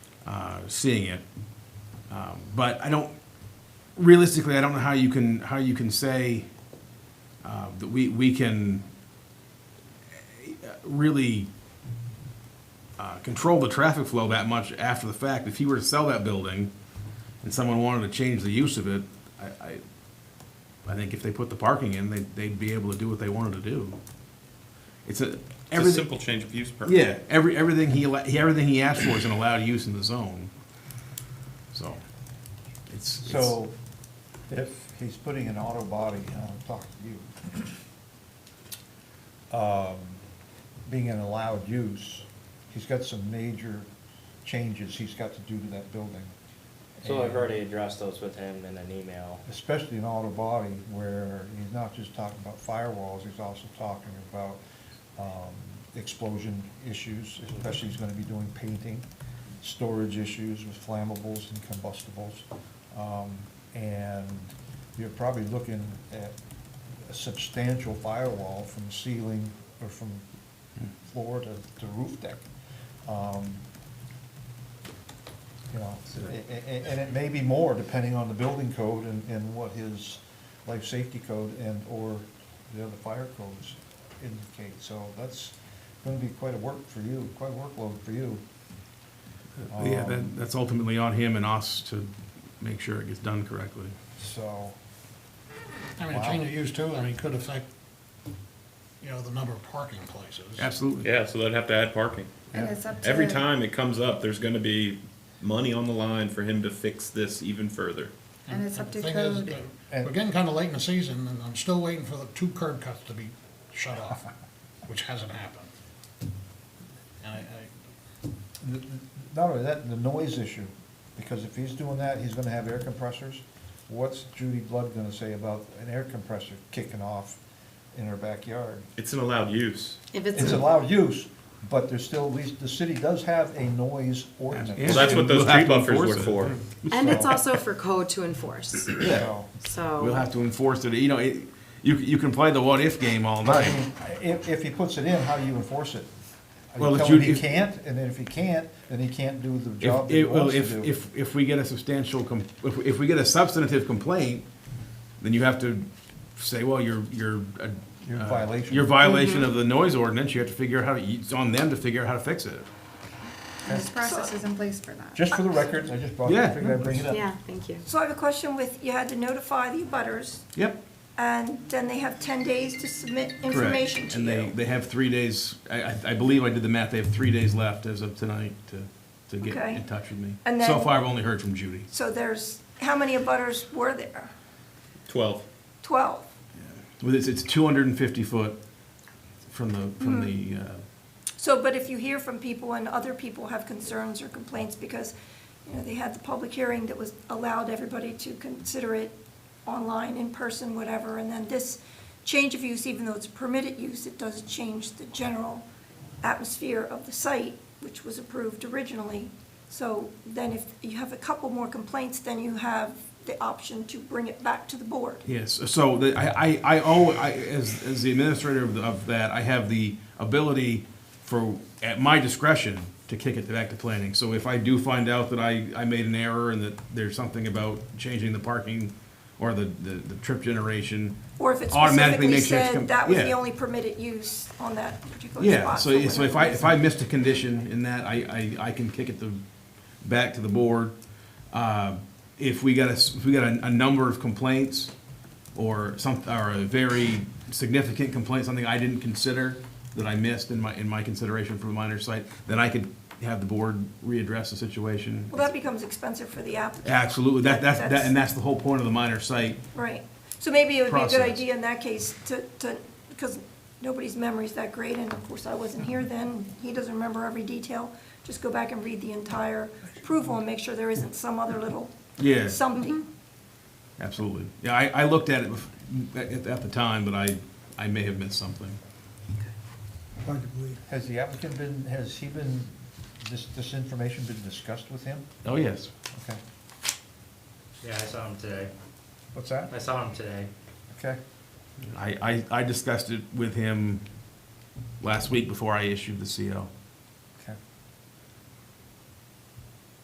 uh, seeing it. Um, But I don't, realistically, I don't know how you can, how you can say uh, that we, we can uh, really uh, control the traffic flow that much after the fact. If he were to sell that building and someone wanted to change the use of it, I, I, I think if they put the parking in, they'd, they'd be able to do what they wanted to do. It's a, It's a everything, simple change of use permit. yeah, every, everything he, alla- he- everything he asked for is an allowed use in the zone. So, it's, it's- So if he's putting an auto body, and I'll talk to you, um, being an allowed use, he's got some major changes he's got to do to that building. So I've already addressed those with him in an email. Especially in auto body where he's not just talking about firewalls, he's also talking about um, explosion issues, especially he's gonna be doing painting, storage issues with flammables and combustibles. Um, And you're probably looking at a substantial firewall from ceiling or from floor to, to roof deck. Um, you know, a- a- a- and it may be more depending on the building code and, and what his life safety code and/or the other fire codes indicate. So that's gonna be quite a work for you, quite a workload for you. yeah, Um, that, that's ultimately on him and us to make sure it gets done correctly. So, I mean, a change of use too, I mean, could affect, you know, the number of parking places. Absolutely. Yeah, so they'd have to add parking. And it's up to. Every time it comes up, there's gonna be money on the line for him to fix this even further. And it's up to The thing is, code. uh, We're getting kinda late in the season, and I'm still waiting for the two curb cuts to be shut off, which hasn't happened. And I, I, n- n- not only that, the noise issue, because if he's doing that, he's gonna have air compressors. What's Judy Blood gonna say about an air compressor kicking off in her backyard? It's an allowed use. If It's allowed use, but there's still, at least the city does have a noise Well, ordinance. that's what those We'll have tree to buffers were enforce it. for. And it's also for code to enforce, So, We'll so, have to enforce it, you know, it, you, you can play the what-if game all I night. mean, If, if he puts it in, how do you enforce it? Are Well, you if telling you- he if- can't, and then if he can't, then he can't do the job If, that he if, well, wants to if, do? if, if we get a substantial, com- if, if we get a substantive complaint, then you have to say, well, you're, you're. uh, You're in uh, violation. You're violation of the noise ordinance, you have to figure out how, to- it's on them to figure out how to fix it. This process is in place for that. Just for the records, I just brought it, Yeah. I figured I'd bring it up. yeah, thank you. So I have a question with, you had to notify the abutters, Yep. and then they have 10 days to submit information Correct. to And they, you. they have three days, I, I- I believe I did the math, they have three days left as of tonight to, to get Okay. in touch with me. And So then- far, I've only heard from Judy. So there's, how many abutters were there? Twelve. 12? Well, It's, it's two hundred and fifty foot from the, Hmm. from the, uh, So, but if you hear from people and other people have concerns or complaints, because, you know, they had the public hearing that was, allowed everybody to consider it online, in person, whatever, and then this change of use, even though it's permitted use, it does change the general atmosphere of the site, which was approved originally. So then if you have a couple more complaints, then you have the option to bring it back to the board. Yes, so the, I, I, I owe, I, as, as the administrator of, the- of that, I have the ability for, at my discretion, to kick it back to planning. So if I do find out that I, I made an error and that there's something about changing the parking or the, the, the trip generation. Or if it automatically specifically makes sure it's com- said that was the yeah. only permitted use on that particular spot. Yeah, so, for so if I, whatever if I missed a condition in that, I, I, I can kick it the, back to the board. Uh, If we got a, s- if we got a, a number of complaints, or some, or a very significant complaint, something I didn't consider, that I missed in my, in my consideration for the minor site, then I could have the board readdress the situation. Well, that becomes expensive for the applicant, Absolutely, that, that's, that, That's- and that's the whole point of the minor site, right? So maybe it would be a good Process. idea in that case to, to, because nobody's memory's that great, and of course, I wasn't here then, he doesn't remember every detail. Just go back and read the entire approval and make sure there isn't some other little Yeah. something. absolutely. Yeah, I, I looked at it bef- at, at the time, but I, I may have missed something. Has the applicant been, has he been, this, this information been discussed with him? Oh, yes. Okay, Yeah, I saw him today. what's that? I saw him today. Okay, I, I, I discussed it with him last week before I issued the CO.